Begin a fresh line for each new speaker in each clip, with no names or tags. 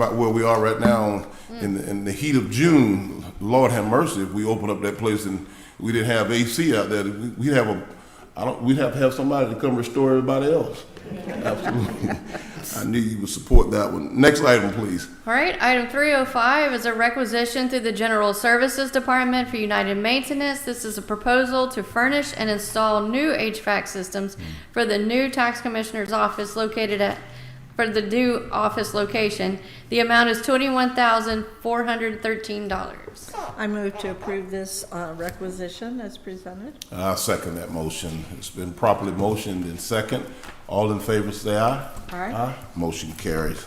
about where we are right now in, the, in the heat of June. Lord have mercy, if we opened up that place and we didn't have AC out there, we- we'd have a, I don't, we'd have to have somebody to come restore everybody else. Absolutely. I knew you would support that one. Next item, please.
All right, item 305 is a requisition through the General Services Department for United Maintenance. This is a proposal to furnish and install new HVAC systems for the new tax commissioner's office located at, for the new office location. The amount is $21,413.
I move to approve this uh, requisition as presented.
I second that motion. It's been properly motioned and second. All in favor, say aye.
Aye.
Motion carries.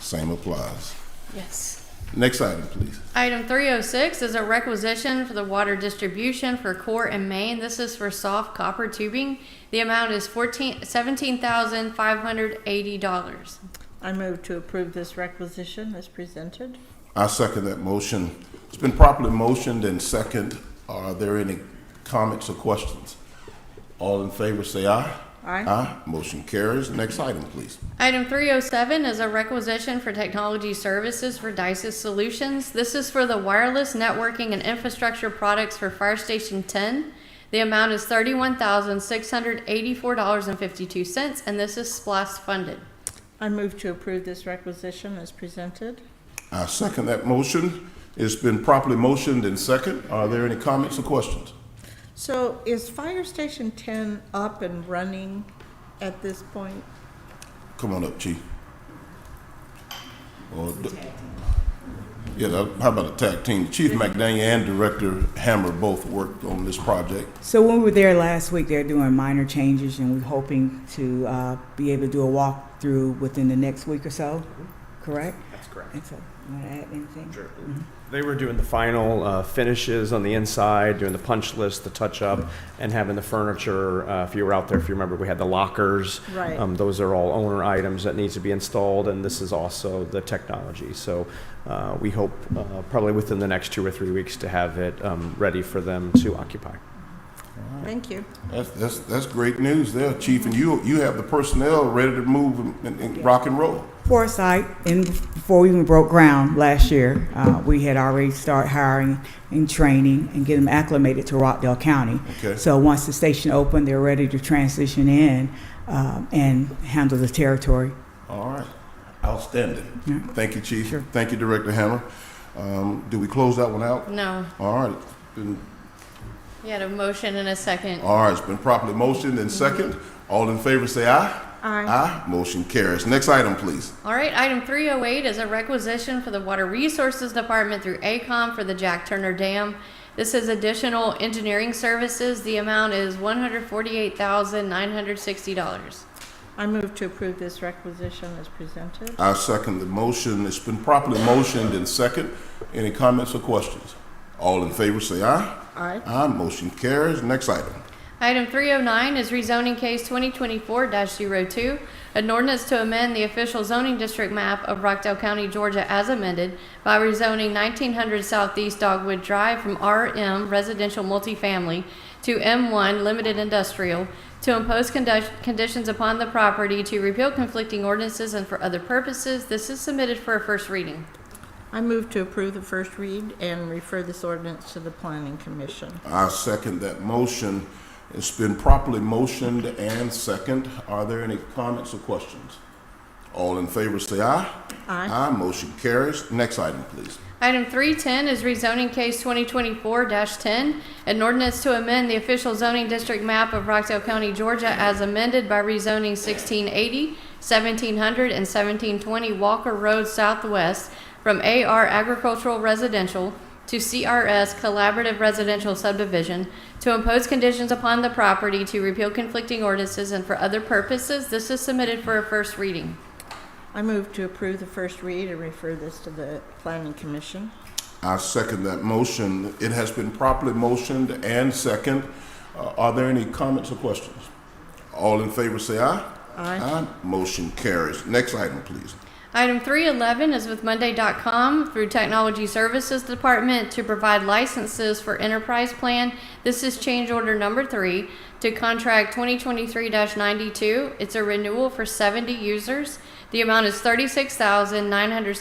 Same applies.
Yes.
Next item, please.
Item 306 is a requisition for the water distribution for Core and Main. This is for soft copper tubing. The amount is 14, $17,580.
I move to approve this requisition as presented.
I second that motion. It's been properly motioned and second. Are there any comments or questions? All in favor, say aye.
Aye.
Aye. Motion carries. Next item, please.
Item 307 is a requisition for technology services for Dices Solutions. This is for the wireless networking and infrastructure products for Fire Station 10. The amount is $31,684.52, and this is SPLAST funded.
I move to approve this requisition as presented.
I second that motion. It's been properly motioned and second. Are there any comments or questions?
So is Fire Station 10 up and running at this point?
Come on up, Chief. Or d- Yeah, that- how about a tag team? Chief McDaniel and Director Hammer both worked on this project.
So when we were there last week, they're doing minor changes, and we're hoping to uh, be able to do a walkthrough within the next week or so. Correct.
That's correct.
And so, you want to add anything?
Sure. They were doing the final uh, finishes on the inside, doing the punch list, the touch up, and having the furniture. Uh, if you were out there, if you remember, we had the lockers.
Right.
Um, those are all owner items that needs to be installed, and this is also the technology. So uh, we hope uh, probably within the next two or three weeks to have it um, ready for them to occupy.
Thank you.
That's, that's, that's great news there, Chief, and you, you have the personnel ready to move and- and, and rock and roll.
Foresight, and before we even broke ground last year, uh, we had already started hiring and training and getting them acclimated to Rockdale County.
Okay.
So once the station opened, they're ready to transition in uh, and handle the territory.
All right, outstanding.
Yeah.
Thank you, Chief.
Sure.
Thank you, Director Hammer. Um, do we close that one out?
No,
All right, It's been-
you had a motion and a second.
all right, it's been properly motioned and second. All in favor, say aye.
Aye.
Aye, motion carries. Next item, please.
All right, item 308 is a requisition for the Water Resources Department through ACOM for the Jack Turner Dam. This is additional engineering services. The amount is $148,960.
I move to approve this requisition as presented.
I second the motion. It's been properly motioned and second. Any comments or questions? All in favor, say aye.
Aye.
Aye, motion carries. Next item.
Item 309 is rezoning case 2024-02, an ordinance to amend the official zoning district map of Rockdale County, Georgia as amended by rezoning 1900 Southeast Dogwood Drive from RM Residential Multifamily to M1 Limited Industrial to impose condu- conditions upon the property to repeal conflicting ordinances and for other purposes. This is submitted for a first reading.
I move to approve the first read and refer this ordinance to the Planning Commission.
I second that motion. It's been properly motioned and second. Are there any comments or questions? All in favor, say aye.
Aye.
Aye, motion carries. Next item, please.
Item 310 is rezoning case 2024-10, an ordinance to amend the official zoning district map of Rockdale County, Georgia as amended by rezoning 1680, 1700, and 1720 Walker Road Southwest from AR Agricultural Residential to CRS Collaborative Residential Subdivision to impose conditions upon the property to repeal conflicting ordinances and for other purposes. This is submitted for a first reading.
I move to approve the first read and refer this to the Planning Commission.
I second that motion. It has been properly motioned and second. Uh, Are there any comments or questions? All in favor, say aye.
Aye.
Motion carries. Next item, please.
Item 311 is with Monday.com through Technology Services Department to provide licenses for Enterprise Plan. This is change order number three to contract 2023-92. It's a renewal for 70 users. The amount is thirty-six thousand nine hundred